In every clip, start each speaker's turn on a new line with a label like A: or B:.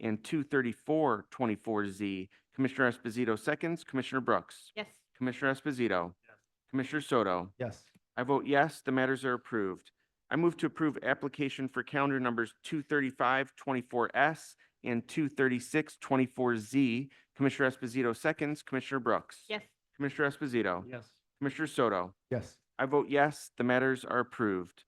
A: and two thirty-four twenty-four Z. Commissioner Esposito seconds, Commissioner Brooks.
B: Yes.
A: Commissioner Esposito. Commissioner Soto.
C: Yes.
A: I vote yes, the matters are approved. I move to approve application for calendar numbers two thirty-five twenty-four S and two thirty-six twenty-four Z. Commissioner Esposito seconds, Commissioner Brooks.
B: Yes.
A: Commissioner Esposito.
C: Yes.
A: Commissioner Soto.
C: Yes.
A: I vote yes, the matters are approved.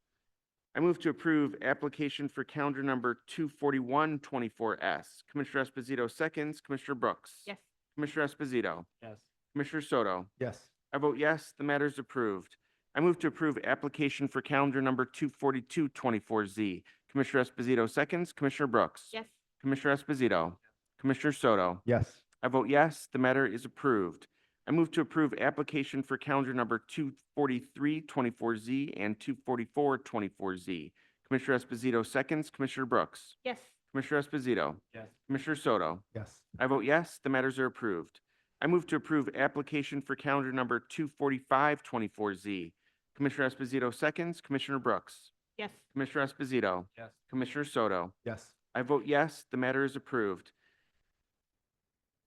A: I move to approve application for calendar number two forty-one twenty-four S. Commissioner Esposito seconds, Commissioner Brooks.
B: Yes.
A: Commissioner Esposito.
C: Yes.
A: Commissioner Soto.
C: Yes.
A: I vote yes, the matter is approved. I move to approve application for calendar number two forty-two twenty-four Z. Commissioner Esposito seconds, Commissioner Brooks.
B: Yes.
A: Commissioner Esposito. Commissioner Soto.
C: Yes.
A: I vote yes, the matter is approved. I move to approve application for calendar number two forty-three twenty-four Z and two forty-four twenty-four Z. Commissioner Esposito seconds, Commissioner Brooks.
B: Yes.
A: Commissioner Esposito.
C: Yes.
A: Commissioner Soto.
C: Yes.
A: I vote yes, the matters are approved. I move to approve application for calendar number two forty-five twenty-four Z. Commissioner Esposito seconds, Commissioner Brooks.
B: Yes.
A: Commissioner Esposito.
C: Yes.
A: Commissioner Soto.
C: Yes.
A: I vote yes, the matter is approved.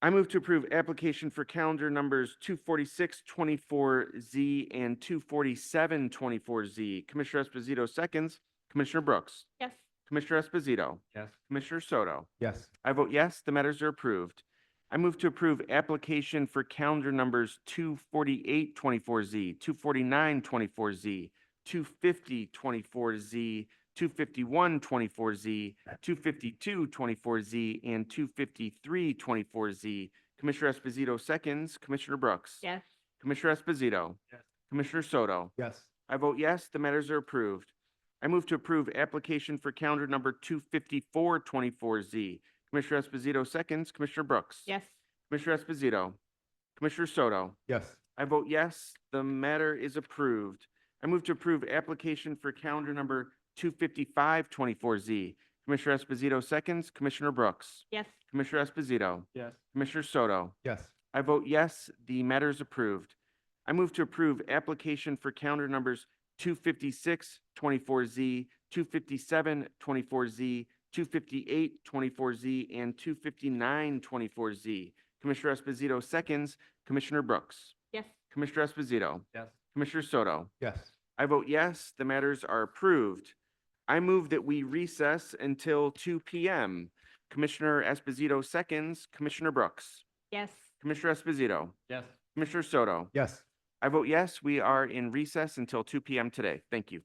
A: I move to approve application for calendar numbers two forty-six twenty-four Z and two forty-seven twenty-four Z. Commissioner Esposito seconds, Commissioner Brooks.
B: Yes.
A: Commissioner Esposito.
C: Yes.
A: Commissioner Soto.
C: Yes.
A: I vote yes, the matters are approved. I move to approve application for calendar numbers two forty-eight twenty-four Z, two forty-nine twenty-four Z, two fifty twenty-four Z, two fifty-one twenty-four Z, two fifty-two twenty-four Z, and two fifty-three twenty-four Z. Commissioner Esposito seconds, Commissioner Brooks.
B: Yes.
A: Commissioner Esposito.
C: Yes.
A: Commissioner Soto.
C: Yes.
A: I vote yes, the matters are approved. I move to approve application for calendar number two fifty-four twenty-four Z. Commissioner Esposito seconds, Commissioner Brooks.
B: Yes.
A: Commissioner Esposito. Commissioner Soto.
C: Yes.
A: I vote yes, the matter is approved. I move to approve application for calendar number two fifty-five twenty-four Z. Commissioner Esposito seconds, Commissioner Brooks.
B: Yes.
A: Commissioner Esposito.
C: Yes.
A: Commissioner Soto.
C: Yes.
A: I vote yes, the matter is approved. I move to approve application for calendar numbers two fifty-six twenty-four Z, two fifty-seven twenty-four Z, two fifty-eight twenty-four Z, and two fifty-nine twenty-four Z. Commissioner Esposito seconds, Commissioner Brooks.
B: Yes.
A: Commissioner Esposito.
C: Yes.
A: Commissioner Soto.
C: Yes.
A: I vote yes, the matters are approved. I move that we recess until two PM. Commissioner Esposito seconds, Commissioner Brooks.
B: Yes.
A: Commissioner Esposito.
C: Yes.
A: Commissioner Soto.
C: Yes.
A: I vote yes, we are in recess until two PM today. Thank you.